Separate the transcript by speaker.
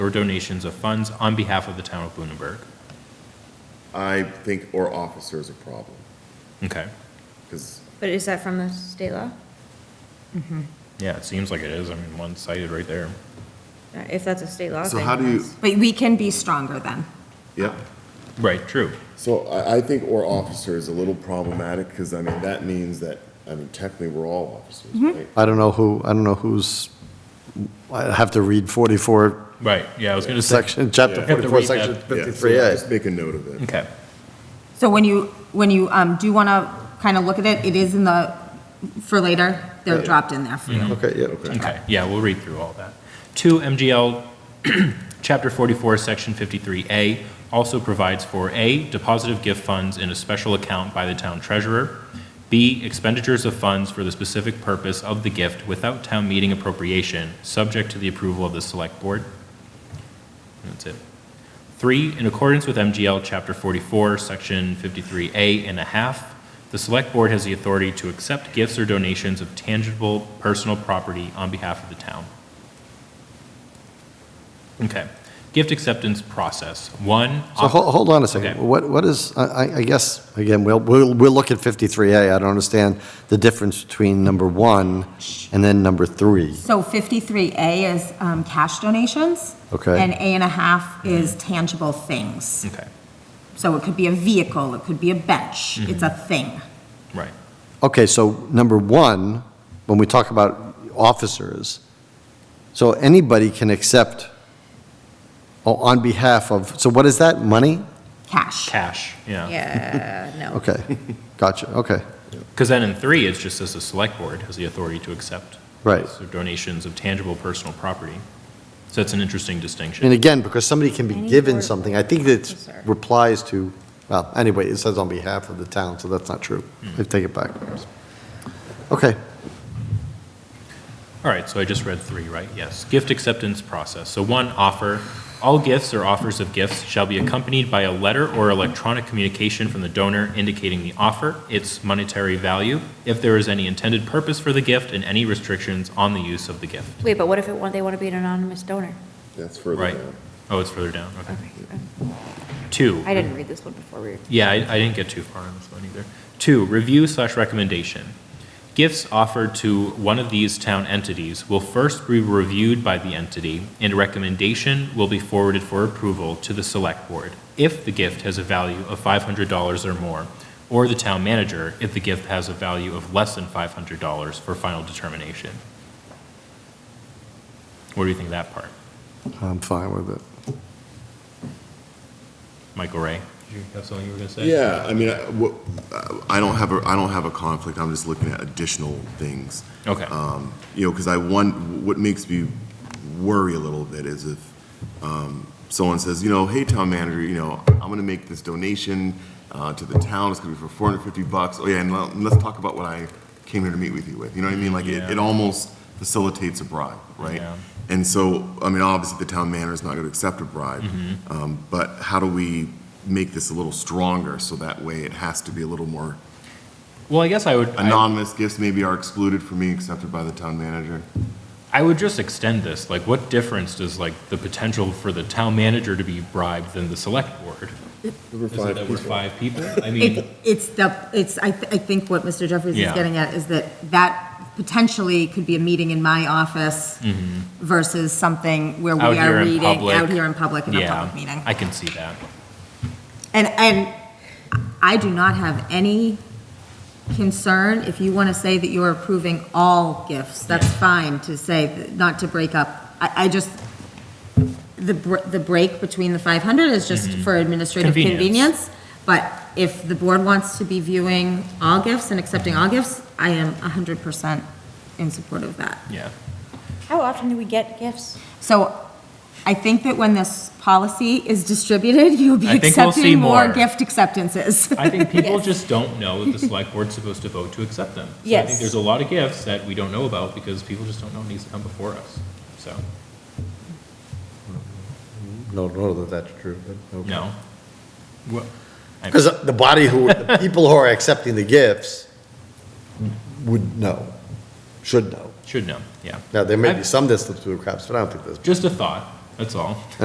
Speaker 1: or donations of funds on behalf of the town of Lunenburg.
Speaker 2: I think or officer is a problem,
Speaker 1: Okay.
Speaker 2: because
Speaker 3: But is that from the state law?
Speaker 1: Yeah, it seems like it is. I mean, one sided right there.
Speaker 3: Uh, If that's a state law
Speaker 2: So
Speaker 3: thing.
Speaker 2: how do you-
Speaker 3: that's-
Speaker 4: But we can be stronger then.
Speaker 2: Yeah.
Speaker 1: Right, true.
Speaker 2: So I, I think or officer is a little problematic, because I mean, that means that, I mean, technically, we're all officers, right?
Speaker 5: I don't know who, I don't know who's, I have to read 44
Speaker 1: Right, yeah, I was gonna say.
Speaker 5: section, chapter
Speaker 2: Yeah. Have
Speaker 1: to
Speaker 5: 44,
Speaker 1: read that.
Speaker 5: section
Speaker 2: Yeah, so
Speaker 5: 53A.
Speaker 2: Just make a note of it.
Speaker 1: Okay,
Speaker 4: So when you, when you um, do want to kind of look at it, it is in the, for later, they're dropped in there for you.
Speaker 5: Okay, yeah.
Speaker 1: okay, yeah, we'll read through all that. Two, MGL, Chapter 44, Section 53A also provides for A, deposit of gift funds in a special account by the town treasurer, B, expenditures of funds for the specific purpose of the gift without town meeting appropriation, subject to the approval of the select board. That's it. Three, in accordance with MGL Chapter 44, Section 53A and a half, the Select Board has the authority to accept gifts or donations of tangible personal property on behalf of the town. Okay. Gift acceptance process. One.
Speaker 5: So hold, hold on a second.
Speaker 1: Okay.
Speaker 5: What, what is, I, I- I guess, again, we'll, we'll, we'll look at 53A. I don't understand the difference between number one and then number three.
Speaker 4: So 53A is um, cash donations.
Speaker 5: Okay.
Speaker 4: And A and a half
Speaker 1: Mm-hmm.
Speaker 4: is tangible things.
Speaker 1: Okay,
Speaker 4: So it could be a vehicle, it could be a bench,
Speaker 1: Mm-hmm.
Speaker 4: it's a thing.
Speaker 1: right.
Speaker 5: Okay, so number one, when we talk about officers, so anybody can accept o- on behalf of, so what is that, money?
Speaker 4: Cash.
Speaker 1: Cash, yeah.
Speaker 3: Yeah, no.
Speaker 5: Okay, gotcha, okay,
Speaker 1: Because then in three, it's just as the Select Board has the authority to accept
Speaker 5: right.
Speaker 1: gifts or donations of tangible personal property. So that's an interesting distinction.
Speaker 5: And again, because somebody can be
Speaker 3: Any
Speaker 5: given
Speaker 3: board
Speaker 5: something, I think it
Speaker 3: officer.
Speaker 5: replies to, well, anyway, it says on behalf of the town, so that's not true. I take it back. Okay,
Speaker 1: All right, so I just read three, right? Yes. Gift acceptance process. So one, offer. All gifts or offers of gifts shall be accompanied by a letter or electronic communication from the donor indicating the offer, its monetary value, if there is any intended purpose for the gift, and any restrictions on the use of the gift.
Speaker 3: Wait, but what if it, wa- they want to be an anonymous donor?
Speaker 2: That's further
Speaker 1: Right.
Speaker 2: down.
Speaker 1: Oh, it's further down, okay.
Speaker 3: Okay,
Speaker 1: Two.
Speaker 3: I didn't read this one before we.
Speaker 1: Yeah, I, I didn't get too far on this one either. Two, review slash recommendation. Gifts offered to one of these town entities will first be reviewed by the entity, and a recommendation will be forwarded for approval to the select board if the gift has a value of five hundred dollars or more, or the town manager if the gift has a value of less than five hundred dollars for final determination. What do you think of that part?
Speaker 5: I'm fine with it.
Speaker 1: Michael Ray? Did you have something you were gonna say?
Speaker 2: Yeah, I mean, I, what- I don't have a, I don't have a conflict, I'm just looking at additional things.
Speaker 1: Okay.
Speaker 2: Um, You know, because I want, what makes me worry a little bit is if um, someone says, you know, hey, town manager, you know, I'm going to make this donation uh, to the town, it's going to be for 450 bucks, oh yeah, and let- let's talk about what I came here to meet with you with, you know what I mean? Like, it,
Speaker 1: Yeah.
Speaker 2: it almost facilitates a bribe, right?
Speaker 1: Yeah.
Speaker 2: And so, I mean, obviously, the town manager's not going to accept a bribe,
Speaker 1: Mm-hmm.
Speaker 2: um, but how do we make this a little stronger, so that way it has to be a little more
Speaker 1: Well, I guess I would. I-
Speaker 2: anonymous gifts maybe are excluded from being accepted by the town manager.
Speaker 1: I would just extend this, like, what difference does, like, the potential for the town manager to be bribed than the select board? Is it that we're five people? I mean,
Speaker 4: It- It's the, it's, I, th- I think what Mr. Jeffries is
Speaker 1: Yeah.
Speaker 4: getting at is that that potentially could be a meeting in my office versus something where we
Speaker 1: Mm-hmm. Out here
Speaker 4: are
Speaker 1: in
Speaker 4: reading,
Speaker 1: public.
Speaker 4: out here in public, in a
Speaker 1: yeah,
Speaker 4: public meeting.
Speaker 1: I can see that.
Speaker 4: And, and I do not have any concern, if you want to say that you're approving all gifts, that's fine to say, that- not to break up. I, I just, the, br- the break between the 500 is just for administrative
Speaker 1: Mm-hmm. Convenience.
Speaker 4: convenience. But if the board wants to be viewing all gifts and accepting all gifts, I am 100% in support of that.
Speaker 1: Yeah,
Speaker 3: How often do we get gifts?
Speaker 4: So I think that when this policy is distributed, you'll be
Speaker 1: I think we'll see
Speaker 4: accepting more
Speaker 1: more.
Speaker 4: gift acceptances.
Speaker 1: I think people
Speaker 3: Yes.
Speaker 1: just don't know that the select board's supposed to vote to accept them. So I think
Speaker 3: Yes.
Speaker 1: there's a lot of gifts that we don't know about because people just don't know it needs to come before us, so,
Speaker 5: No, no, that that's true, but. okay.
Speaker 1: no. Well, I-
Speaker 5: Because the body who, the people who are accepting the gifts would know, should know.
Speaker 1: Should know, yeah.
Speaker 5: Now, there may be
Speaker 1: I've-
Speaker 5: some distance to the cracks, but I don't think there's.
Speaker 1: Just a thought, That's all.